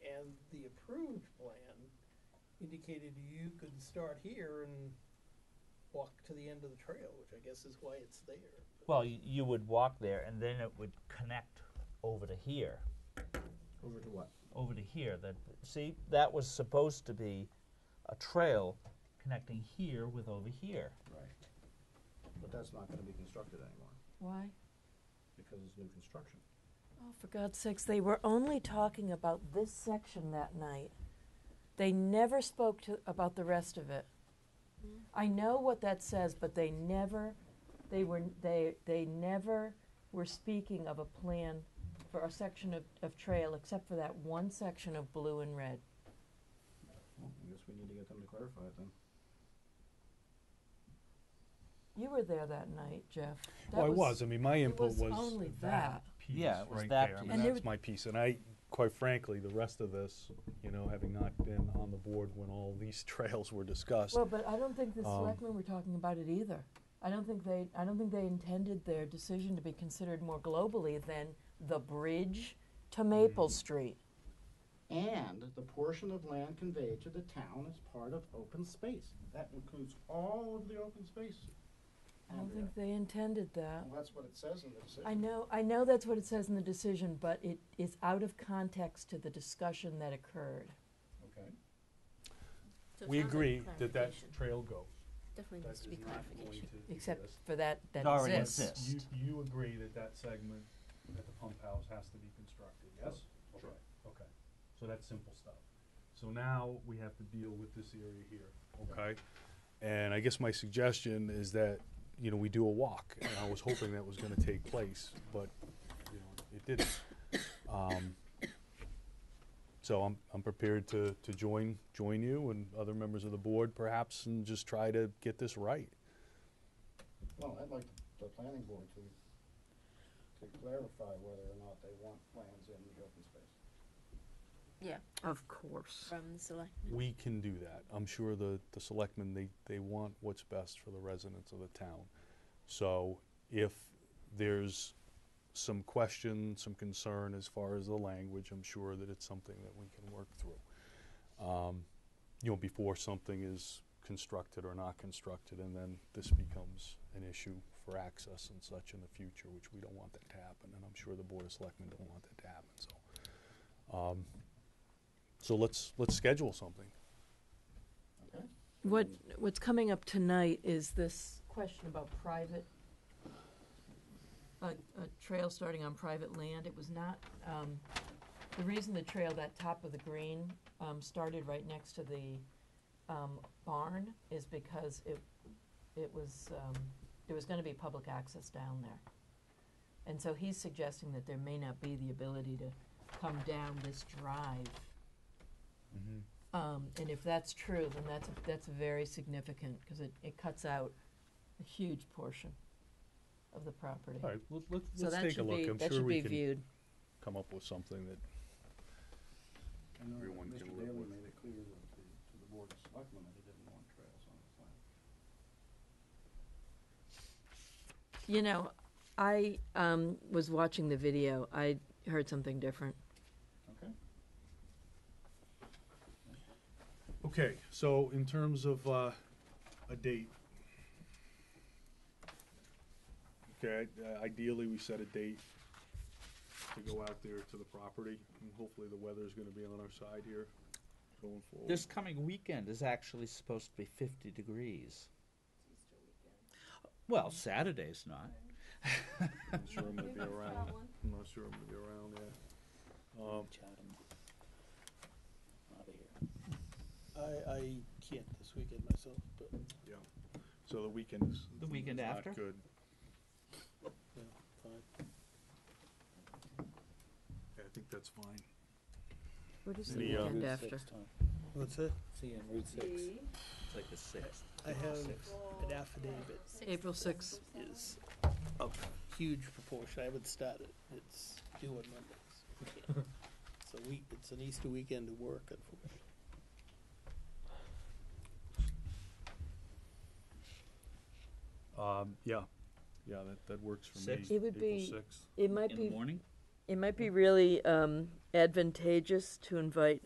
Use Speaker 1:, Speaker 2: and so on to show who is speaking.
Speaker 1: indicated you could start here and walk to the end of the trail, which I guess is why it's there.
Speaker 2: Well, you, you would walk there, and then it would connect over to here,
Speaker 3: Over to what?
Speaker 2: over to here. That see, that was supposed to be a trail connecting here with over here.
Speaker 3: Right. But that's not gonna be constructed anymore,
Speaker 4: Why?
Speaker 3: because it's new construction.
Speaker 4: Oh, for God's sakes, they were only talking about this section that night. They never spoke to, about the rest of it. I know what that says, but they never, they were, they, they never were speaking of a plan for a section of, of trail, except for that one section of blue and red.
Speaker 3: Well, I guess we need to get them to clarify it then.
Speaker 4: You were there that night, Jeff. That
Speaker 5: Well, I was. I mean, my
Speaker 4: it
Speaker 5: input
Speaker 4: was
Speaker 5: was
Speaker 4: only that.
Speaker 5: that piece
Speaker 2: Yeah, it was
Speaker 5: right
Speaker 2: that
Speaker 5: there. I
Speaker 2: piece.
Speaker 5: mean,
Speaker 4: And
Speaker 5: that's
Speaker 4: there-
Speaker 5: my piece. And I, quite frankly, the rest of this, you know, having not been on the board when all these trails were discussed,
Speaker 4: Well, but I don't think the
Speaker 5: Um,
Speaker 4: selectmen were talking about it either. I don't think they, I don't think they intended their decision to be considered more globally than the bridge to Maple Street.
Speaker 3: And the portion of land conveyed to the town is part of open space. That includes all of the open space.
Speaker 4: I don't
Speaker 3: Andrea.
Speaker 4: think they intended that.
Speaker 3: Well, that's what it says in the decision.
Speaker 4: I know, I know that's what it says in the decision, but it is out of context to the discussion that occurred.
Speaker 3: Okay.
Speaker 6: So it
Speaker 5: we
Speaker 6: sounds like
Speaker 5: agree that that
Speaker 6: clarification.
Speaker 5: trail goes.
Speaker 6: Definitely
Speaker 5: That
Speaker 6: needs
Speaker 5: is
Speaker 6: to be
Speaker 5: not going
Speaker 6: clarification.
Speaker 5: to
Speaker 4: Except
Speaker 5: exist.
Speaker 4: for that, that
Speaker 2: It already
Speaker 4: exists.
Speaker 2: exists.
Speaker 5: You, you agree that that segment at the pump house has to be constructed, yes?
Speaker 3: Sure.
Speaker 5: Okay, Okay, so that's simple stuff. So now we have to deal with this area here, okay? And I guess my suggestion is that, you know, we do a walk, and I was hoping that was gonna take place, but, you know, it didn't. Um, So I'm, I'm prepared to, to join, join you and other members of the board perhaps, and just try to get this right.
Speaker 3: Well, I'd like the planning board to, to clarify whether or not they want plans in the open space.
Speaker 6: Yeah,
Speaker 4: Of course.
Speaker 6: from the select.
Speaker 5: We can do that. I'm sure the, the selectmen, they, they want what's best for the residents of the town. So if there's some question, some concern as far as the language, I'm sure that it's something that we can work through. Um, You know, before something is constructed or not constructed, and then this becomes an issue for access and such in the future, which we don't want that to happen, and I'm sure the Board of Selectmen don't want that to happen, so. um, So let's, let's schedule something.
Speaker 3: Okay?
Speaker 4: What, what's coming up tonight is this question about private, a, a trail starting on private land. It was not, um, the reason the trail, that top of the green, um, started right next to the, um, barn is because it, it was, um, there was gonna be public access down there. And so he's suggesting that there may not be the ability to come down this drive um, and if that's true, then that's, that's very significant, because it, it cuts out a huge portion of the property.
Speaker 5: All right, let- let's,
Speaker 4: So
Speaker 5: let's
Speaker 4: that
Speaker 5: take a
Speaker 4: should be,
Speaker 5: look. I'm
Speaker 4: that should
Speaker 5: sure we
Speaker 4: be
Speaker 5: can
Speaker 4: viewed.
Speaker 5: come up with something that,
Speaker 3: I know that
Speaker 5: Everyone
Speaker 3: Mr.
Speaker 5: can live
Speaker 3: Daley
Speaker 5: with.
Speaker 3: made it clear that the, to the board of selectmen that he didn't want trails on his land.
Speaker 4: You know, I, um, was watching the video, I heard something different.
Speaker 3: Okay?
Speaker 5: okay, so in terms of, uh, a date. Okay, i- uh, ideally, we set a date to go out there to the property, and hopefully the weather's gonna be on our side here going forward.
Speaker 2: This coming weekend is actually supposed to be 50 degrees. Well, Saturday's not.
Speaker 5: I'm not sure I'm gonna be around, I'm not sure I'm gonna be around, yeah. Um,
Speaker 1: I, I can't this weekend myself, but
Speaker 5: yeah, so the weekend is.
Speaker 2: The weekend
Speaker 5: is not
Speaker 2: after?
Speaker 5: Good.
Speaker 1: yeah, fine.
Speaker 5: Yeah, I think that's fine.
Speaker 4: What is the
Speaker 5: The, uh,
Speaker 4: weekend after?
Speaker 1: What's it?
Speaker 7: See you on Route Six.
Speaker 2: It's like the 6th.
Speaker 1: I have an affidavit
Speaker 4: April sixth.
Speaker 1: is of huge proportion. I haven't started. It's due on Mondays. It's a week, it's an Easter weekend of work, unfortunately.
Speaker 5: Um, yeah, yeah, that, that works for me.
Speaker 2: Six?
Speaker 4: It would be-
Speaker 5: April sixth.
Speaker 4: It might
Speaker 2: In the
Speaker 4: be,
Speaker 2: morning?
Speaker 4: it might be really, um, advantageous to invite